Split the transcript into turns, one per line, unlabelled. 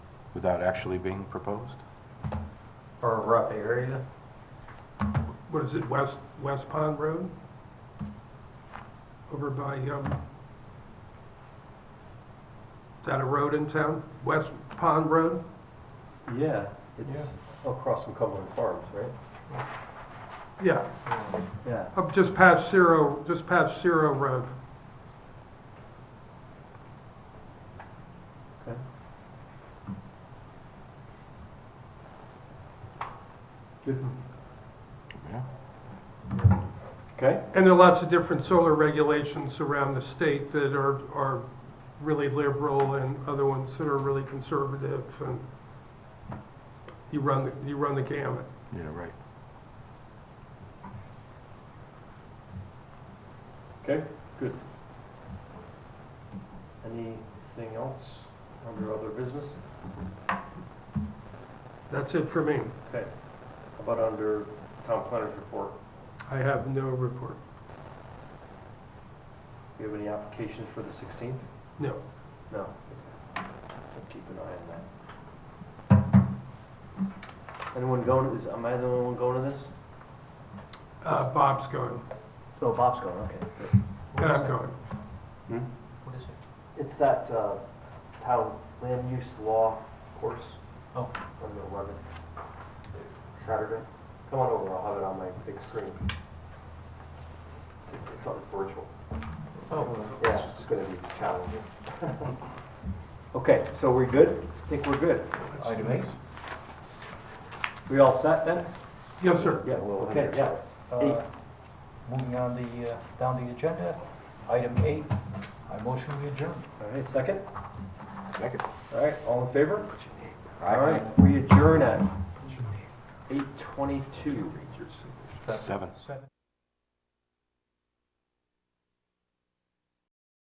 without actually being proposed?
or a rough area.
what is it, West, West Pond Road? Over by, um, is that a road in town? West Pond Road?
Yeah, it's across from Cumberland Farms, right?
Yeah,
Yeah.
up just past Zero, just past Zero Road.
Okay. Good.
Yeah.
Okay,
And there are lots of different solar regulations around the state that are, are really liberal and other ones that are really conservative and you run, the you run the gamut.
Yeah, right.
okay, good. Anything else under other business?
That's it for me.
Okay. How about under town planner's report?
I have no report.
Do you have any applications for the 16th?
No.
No. We'll Keep an eye on that. Anyone going, is, am I the only one going to this?
Uh, Bob's going,
Oh, Bob's going, okay. good.
and I'm going.
What is it?
It's that uh, town land use law course.
Oh.
On the eleventh, Saturday. Come on over, I'll have it on my big screen. It's- It's on virtual.
Oh,
Yeah, it's gonna be challenging. Okay, so we're good? I think we're good.
item eight.
We all set then?
Yes, sir.
Yeah,
we'll
okay,
hear
yeah.
Uh, Moving on the, uh, down the agenda, item eight, I motion we adjourn.
All right, second?
Second.
All right, all in favor? All right, we adjourn at eight twenty-two.
Seven.
Seven.